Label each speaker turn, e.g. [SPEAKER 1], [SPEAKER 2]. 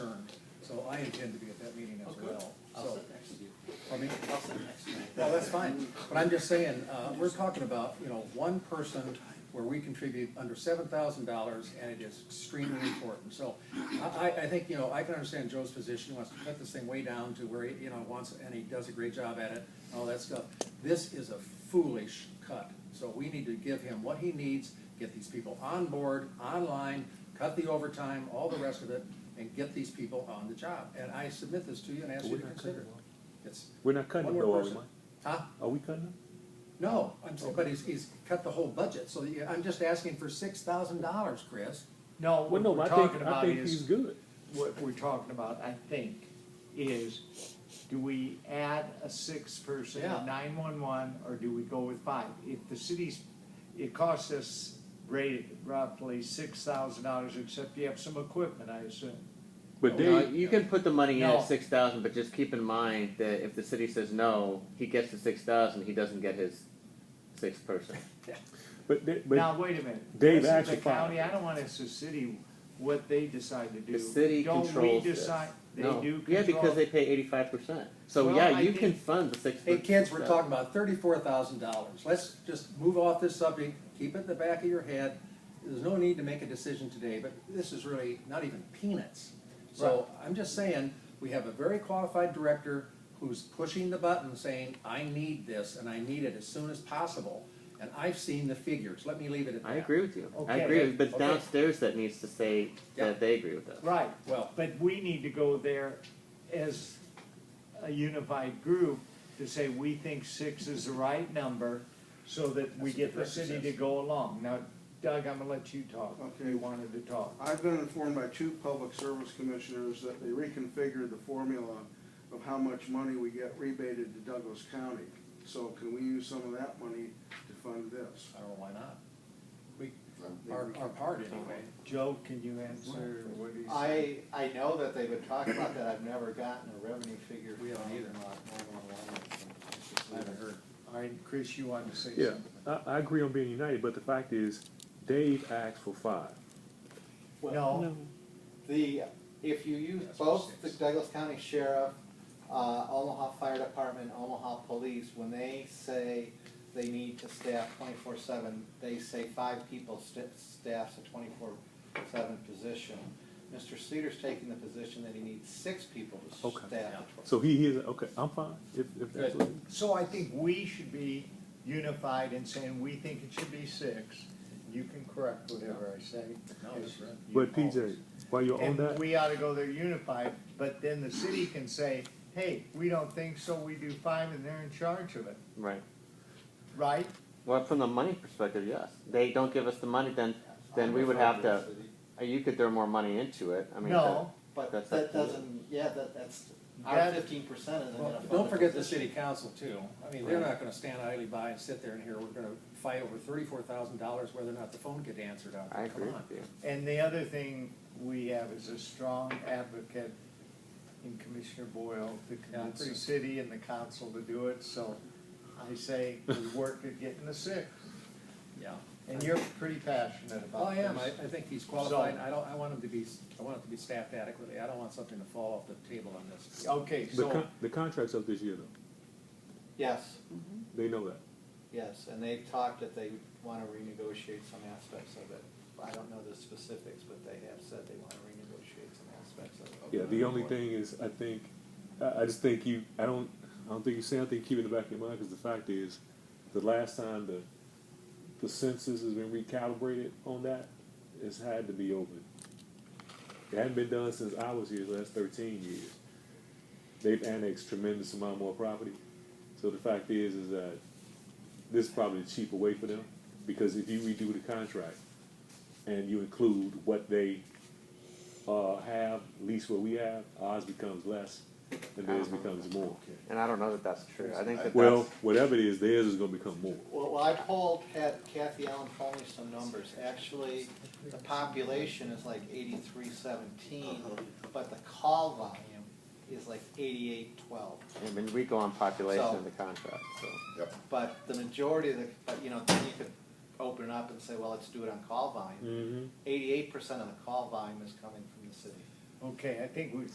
[SPEAKER 1] intend to be at that meeting
[SPEAKER 2] Oh,
[SPEAKER 1] as
[SPEAKER 3] Okay.
[SPEAKER 1] well,
[SPEAKER 3] I'll
[SPEAKER 1] so.
[SPEAKER 3] sit next to you.
[SPEAKER 1] I mean,
[SPEAKER 3] I'll sit next to you.
[SPEAKER 1] well, that's fine, but I'm just saying, uh, we're talking about, you know, one person where we contribute under seven thousand dollars, and it is extremely important, so I, I, I think, you know, I can understand Joe's position, he wants to cut this thing way down to where he, you know, wants, and he does a great job at it, and all that stuff. This is a foolish cut, so we need to give him what he needs, get these people on board, online, cut the overtime, all the rest of it, and get these people on the job, and I submit this to you and ask you to consider it. It's
[SPEAKER 4] We're not cutting
[SPEAKER 1] one
[SPEAKER 4] it
[SPEAKER 1] more
[SPEAKER 4] though, are we,
[SPEAKER 1] person.
[SPEAKER 4] Mike?
[SPEAKER 1] Huh?
[SPEAKER 4] Are we cutting them?
[SPEAKER 1] No, I'm, saying- but he's, he's cut the whole budget, so you- I'm just asking for six thousand dollars, Chris.
[SPEAKER 5] No,
[SPEAKER 4] Well,
[SPEAKER 5] what
[SPEAKER 4] no,
[SPEAKER 5] we're
[SPEAKER 4] I
[SPEAKER 5] talking
[SPEAKER 4] think, I
[SPEAKER 5] about
[SPEAKER 4] think he's
[SPEAKER 5] is,
[SPEAKER 4] good.
[SPEAKER 5] what we're talking about, I think, is do we add a sixth person
[SPEAKER 1] Yeah.
[SPEAKER 5] in nine-one-one or do we go with five? If the city's, it costs us rate roughly six thousand dollars, except you have some equipment, I assume. Oh,
[SPEAKER 4] But
[SPEAKER 6] You know,
[SPEAKER 4] they,
[SPEAKER 6] you can put the money in
[SPEAKER 5] No.
[SPEAKER 6] at six thousand, but just keep in mind that if the city says no, he gets the six thousand, he doesn't get his sixth person.
[SPEAKER 4] but they, but
[SPEAKER 5] Now, wait a minute.
[SPEAKER 4] Dave,
[SPEAKER 5] This is
[SPEAKER 4] actually,
[SPEAKER 5] the
[SPEAKER 4] five.
[SPEAKER 5] county, I don't want it's the city, what they decide to do.
[SPEAKER 6] The city
[SPEAKER 5] Don't we
[SPEAKER 6] controls this.
[SPEAKER 5] decide? They
[SPEAKER 6] No.
[SPEAKER 5] do control.
[SPEAKER 6] Yeah, because they pay eighty-five percent. So
[SPEAKER 5] Well,
[SPEAKER 6] yeah,
[SPEAKER 5] I
[SPEAKER 6] you
[SPEAKER 5] think-
[SPEAKER 6] can fund the six.
[SPEAKER 1] Hey, kids, we're talking about thirty-four thousand dollars. Let's just move off this subject, keep it in the back of your head. There's no need to make a decision today, but this is really not even peanuts. So I'm just saying, we have a very qualified director who's pushing the button saying, I need this and I need it as soon as possible. And I've seen the figures. Let me leave it at that.
[SPEAKER 6] I agree with you. I
[SPEAKER 5] Okay.
[SPEAKER 6] agree, with- but it's
[SPEAKER 1] Okay.
[SPEAKER 6] downstairs that needs to say
[SPEAKER 1] Yeah.
[SPEAKER 6] that they agree with us.
[SPEAKER 5] Right,
[SPEAKER 1] Well-
[SPEAKER 5] but we need to go there as a unified group to say, we think six is the right number, so that we
[SPEAKER 1] That's what
[SPEAKER 5] get
[SPEAKER 1] the
[SPEAKER 5] the city
[SPEAKER 1] director
[SPEAKER 5] to
[SPEAKER 1] says.
[SPEAKER 5] go along. Now, Doug, I'm gonna let you talk,
[SPEAKER 7] Okay.
[SPEAKER 5] you wanted to talk.
[SPEAKER 7] I've been informed by two public service commissioners that they reconfigured the formula of how much money we get rebated to Douglas County. So can we use some of that money to fund this?
[SPEAKER 1] I don't know why not. We, our, our part anyway.
[SPEAKER 5] Joe, can you answer what he said?
[SPEAKER 2] I, I know that they've been talking about that, I've never gotten a revenue figure.
[SPEAKER 1] We haven't
[SPEAKER 2] from,
[SPEAKER 1] either.
[SPEAKER 2] uh, 911.
[SPEAKER 1] I haven't heard.
[SPEAKER 5] I, Chris, you wanted to say
[SPEAKER 4] yeah,
[SPEAKER 5] something?
[SPEAKER 4] I, I agree on being united. But the fact is, Dave asked for five.
[SPEAKER 5] No,
[SPEAKER 2] The, if you use
[SPEAKER 1] That's
[SPEAKER 2] both the
[SPEAKER 1] six.
[SPEAKER 2] Douglas County Sheriff, uh, Omaha Fire Department, Omaha Police, when they say they need to staff twenty-four seven, they say five people sta- staffs a twenty-four seven position. Mr. Cedar's taking the position that he needs six people to staff.
[SPEAKER 4] Okay.
[SPEAKER 2] the tw-
[SPEAKER 4] So he is okay. I'm fine if, if that's
[SPEAKER 1] Good.
[SPEAKER 4] what. It is.
[SPEAKER 5] so I think we should be unified in saying, we think it should be six. You can correct whatever I say.
[SPEAKER 1] No, that's right.
[SPEAKER 5] You
[SPEAKER 4] But PJ,
[SPEAKER 5] always-
[SPEAKER 4] while you're on
[SPEAKER 5] And
[SPEAKER 4] that,
[SPEAKER 5] we ought to go there unified, but then the city can say, hey, we don't think so, we do five, and they're in charge of it,
[SPEAKER 6] Right.
[SPEAKER 5] right?
[SPEAKER 6] Well, from the money perspective, yes. They don't give us the money, then then we would have to. uh, You could throw more money into it. I mean,
[SPEAKER 5] No,
[SPEAKER 2] But
[SPEAKER 6] That's up
[SPEAKER 2] that
[SPEAKER 6] to you.
[SPEAKER 2] doesn't, yeah, that, that's, our
[SPEAKER 5] That-
[SPEAKER 2] fifteen percent isn't gonna
[SPEAKER 1] Well,
[SPEAKER 2] fund.
[SPEAKER 1] don't forget the
[SPEAKER 2] position.
[SPEAKER 1] city council too. I mean, they're not gonna stand idly by and sit there and hear, we're gonna fight over thirty-four thousand dollars whether or not the phone get answered out.
[SPEAKER 6] I
[SPEAKER 1] there.
[SPEAKER 6] agree
[SPEAKER 1] Come on.
[SPEAKER 6] with you.
[SPEAKER 5] and the other thing we have is a strong advocate in Commissioner Boyle to convince the
[SPEAKER 1] pretty-
[SPEAKER 5] city and the council to do it, so I say we work at getting the six.
[SPEAKER 1] Yeah.
[SPEAKER 5] And you're pretty passionate
[SPEAKER 1] Well,
[SPEAKER 5] about
[SPEAKER 1] I
[SPEAKER 5] this.
[SPEAKER 1] am. I, I think he's qualified. I don't, I want him to be, I want it to be staffed adequately. I don't want something to fall off the table on this.
[SPEAKER 5] Okay,
[SPEAKER 4] the
[SPEAKER 5] so,
[SPEAKER 4] con- the contract's up this year though.
[SPEAKER 2] Yes,
[SPEAKER 4] They know that.
[SPEAKER 2] yes, and they've talked that they wanna renegotiate some aspects of it. I don't know the specifics, but they have said they wanna renegotiate some aspects of it.
[SPEAKER 4] Yeah, the only thing is, I think, I, I just think you, I don't, I don't think you say anything, keep it in the back of your mind, because the fact is, the last time the, the census has been recalibrated on that, it's had to be over. It hadn't been done since I was here, so that's thirteen years. They've annexed tremendous amount more property, so the fact is, is that this is probably the cheaper way for them, because if you redo the contract, and you include what they uh, have, at least what we have, ours becomes less, and theirs becomes more.
[SPEAKER 6] And I don't know that that's true. I think that
[SPEAKER 4] Well,
[SPEAKER 6] that's,
[SPEAKER 4] whatever it is, theirs is gonna become more.
[SPEAKER 2] Well, well, I polled, had Kathy Allen poll me some numbers, actually, the population is like eighty-three seventeen,
[SPEAKER 1] Uh-huh.
[SPEAKER 2] but the call volume is like eighty-eight twelve.
[SPEAKER 6] I mean, we go on population
[SPEAKER 2] So-
[SPEAKER 6] of the contract, so.
[SPEAKER 2] But the majority of the, but you know, then you could open it up and say, well, let's do it on call volume.
[SPEAKER 4] Mm-hmm.
[SPEAKER 2] Eighty-eight percent of the call volume is coming from the city.
[SPEAKER 5] okay, I think we've